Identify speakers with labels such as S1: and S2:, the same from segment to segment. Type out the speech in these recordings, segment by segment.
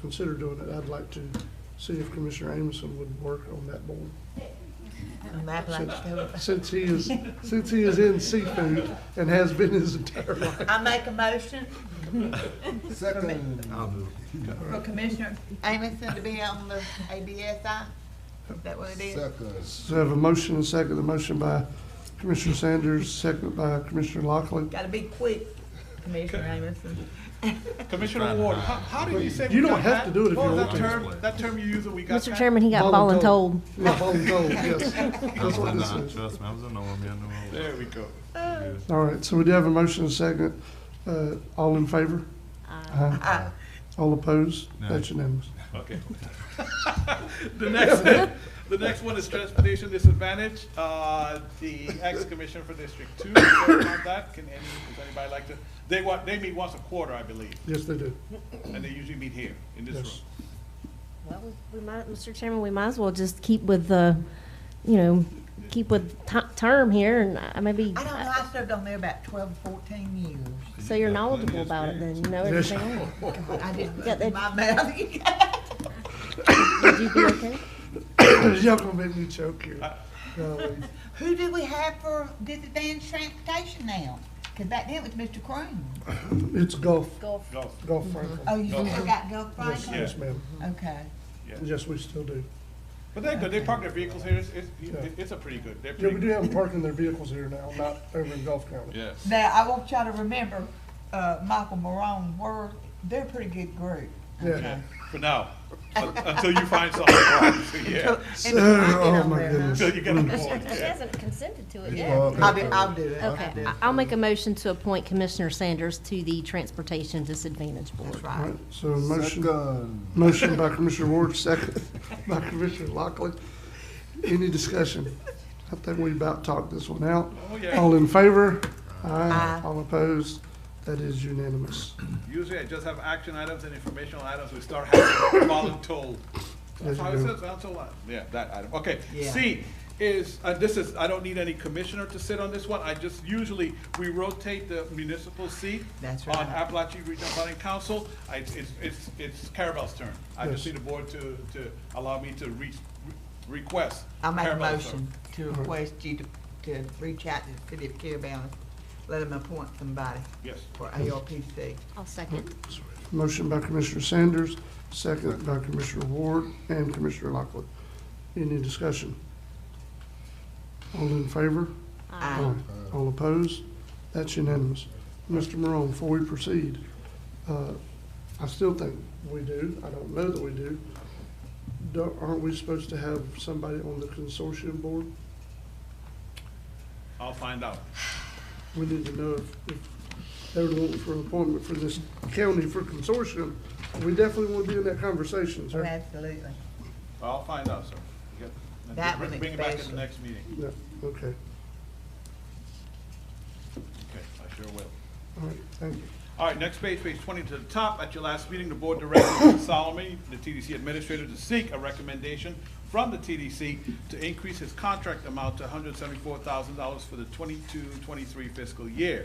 S1: consider doing it, I'd like to see if Commissioner Amison would work on that board.
S2: I'm mad like that.
S1: Since he is, since he is in seafood and has been his entire life.
S2: I make a motion
S3: Second.
S2: for Commissioner Amison to be on the ABSI. Is that what it is?
S3: Second.
S1: So I have a motion and second, a motion by Commissioner Sanders, second by Commissioner Lockley.
S2: Gotta be quick, Commissioner Amison.
S4: Commissioner Ward, how, how did you say?
S1: You don't have to do it if you
S4: What was
S1: want
S4: that
S1: to.
S4: term, that term you used that we got
S5: Mr.
S4: back?
S5: Chairman, he got ball and told.
S1: Yeah, ball and gold, yes.
S6: I was
S1: That's what
S6: in
S1: this
S6: the,
S1: is.
S6: trust me, I was in the one, yeah, I know.
S4: There we go.
S1: All right, so we do have a motion and second. Uh, all in favor? Aye.
S2: Uh,
S1: All opposed?
S6: No.
S1: That's unanimous.
S6: Okay.
S4: The next, the next one is transportation disadvantage. Uh, the ex-commissioner for District Two, served on that, can any, does anybody like to? They want, they meet once a quarter, I believe,
S1: Yes, they do.
S4: and they usually meet here, in this
S1: Yes.
S4: room.
S5: Well, we- we might, Mr. Chairman, we might as well just keep with the, you know, keep with ti- term here and I- maybe,
S2: I don't know, I served on there about twelve, fourteen years.
S5: so you're knowledgeable about it then, you know
S1: Yes.
S5: everything. on it.
S2: I didn't
S5: Yeah, they-
S2: my mouth.
S5: Would you be okay?
S1: Y'all gonna make me choke here. Golly.
S2: Who do we have for disadvantaged transportation now? Cause back then it was Mr. Croom.
S1: It's golf,
S5: Golf.
S4: Go,
S1: golf Franklin.
S2: Oh, you still got Gulf
S1: Yes,
S2: Franklin?
S1: Uh-huh. yes, ma'am.
S2: Okay.
S4: yeah.
S1: Yes, we still do.
S4: But they're good, they park their vehicles here, it's, it's, it's a pretty good, they're
S1: Yeah,
S4: pretty
S1: we do
S4: good.
S1: have them parking their vehicles here now, not over in Gulf County.
S4: Yes.
S2: Now, I want y'all to remember, uh, Michael Morone, were, they're a pretty good group.
S1: Yeah.
S4: Yeah, For now, Un- until you find something wrong, so, yeah,
S1: So, oh my goodness.
S4: until you get on the board, yeah.
S5: consented to it
S2: I'll do, I'll do it.
S5: Okay, I- I'll make a motion to appoint Commissioner Sanders to the Transportation Disadvantage Board.
S2: That's
S1: All
S2: right.
S1: right, so motion,
S3: Second.
S1: motion by Commissioner Ward, second by Commissioner Lockley. Any discussion? I think we about talked this one out.
S4: Oh, yeah,
S1: All in favor?
S2: Aye.
S1: All opposed? That is unanimous.
S4: usually I just have action items and informational items, we start having voluntold. That's how it
S1: There you
S4: says, voluntold, item. yeah, that item, okay.
S2: Yeah.
S4: C is, uh, this is, I don't need any commissioner to sit on this one, I just usually, we rotate the municipal seat.
S2: That's
S4: On
S2: right.
S4: Appalachian Regional Planning Council, I, it's, it's, it's Caravel's turn. I just
S1: Yes.
S4: need the board to, to allow me to re, re- request.
S2: I'll make a
S4: Caravel's turn.
S2: motion to request you to, to reach out to the city of Carabel and let them appoint somebody
S4: Yes.
S2: for ARPC.
S5: I'll second.
S1: Motion by Commissioner Sanders, second by Commissioner Ward and Commissioner Lockley. Any discussion? All in favor? Ah.
S2: Aye.
S1: All opposed? That's unanimous. Mr. Morone, before we proceed, uh, I still think we do, I don't know that we do. Don't- Aren't we supposed to have somebody on the consortium board?
S4: I'll find out.
S1: We need to know if, if they were looking for an appointment for this county for consortium. We definitely want to be in that conversation, sir.
S2: Absolutely.
S4: I'll find out, sir. Yeah. And
S2: That
S4: bring-
S2: one
S4: Bring it back at the
S2: especially.
S4: next meeting.
S1: Yeah, okay,
S4: Okay, I sure will.
S1: all right, thank you.
S4: All right, next page, page twenty to the top. At your last meeting, the board directed Mr. Solomon, the TDC administrator, to seek a recommendation from the TDC to increase his contract amount to hundred seventy-four thousand dollars for the 22-23 fiscal year.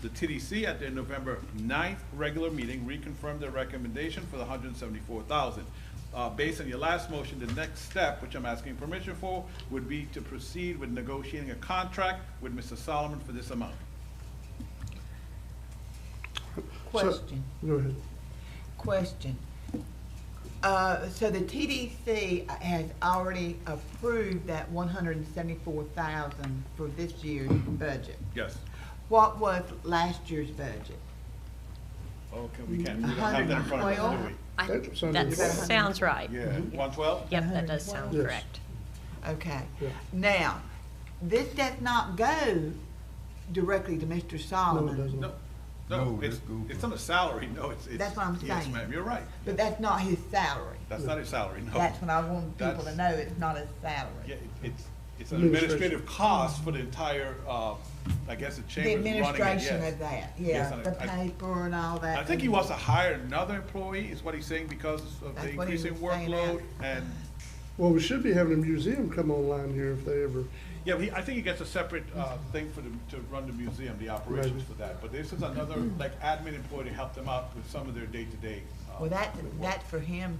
S4: The TDC at their November 9th regular meeting reconfirmed their recommendation for the hundred seventy-four thousand. Uh, based on your last motion, the next step, which I'm asking permission for, would be to proceed with negotiating a contract with Mr. Solomon for this amount.
S2: Question.
S1: Go ahead.
S2: Question. Uh, so the TDC has already approved that one hundred and seventy-four thousand for this year's budget.
S4: Yes.
S2: What was last year's budget?
S4: Okay, Oh, we can't, we don't have that in front of us, do
S1: That sounds
S7: That
S1: good.
S7: sounds right.
S4: we? Yeah, one twelve?
S7: Yep, that does sound
S1: Yes.
S7: correct.
S2: Okay.
S1: Yeah.
S2: Now, this does not go directly to Mr.
S1: No, it
S2: Solomon.
S1: doesn't.
S4: No, no,
S3: No,
S4: it's,
S3: that's good.
S4: it's on the salary, no, it's, it's.
S2: That's what I'm
S4: Yes,
S2: saying.
S4: ma'am, you're right.
S2: But that's not his salary.
S4: That's not his salary, no.
S2: That's what I want people to
S4: That's-
S2: know, it's not his
S4: Yeah,
S2: salary.
S4: it- it's, it's an
S1: Administration.
S4: administrative cost for the entire, uh, I guess the
S2: The
S4: chamber's running it,
S2: administration
S4: yes.
S2: of that,
S4: Yes,
S2: yeah,
S4: and
S2: the
S4: I- I-
S2: paper and all that.
S4: I think he wants to hire another employee, is what he's saying, because of the
S2: That's what he
S4: increasing
S2: was saying now.
S4: workload and,
S1: Well, we should be having a museum come online here if they ever,
S4: yeah, but he, I think he gets a separate, uh, thing for the, to run the museum, the operations
S1: Right.
S2: Mm-hmm.
S4: for that. But this is another, like, admin employee to help them out with some of their day-to-day, uh,
S2: Well, that, that's for him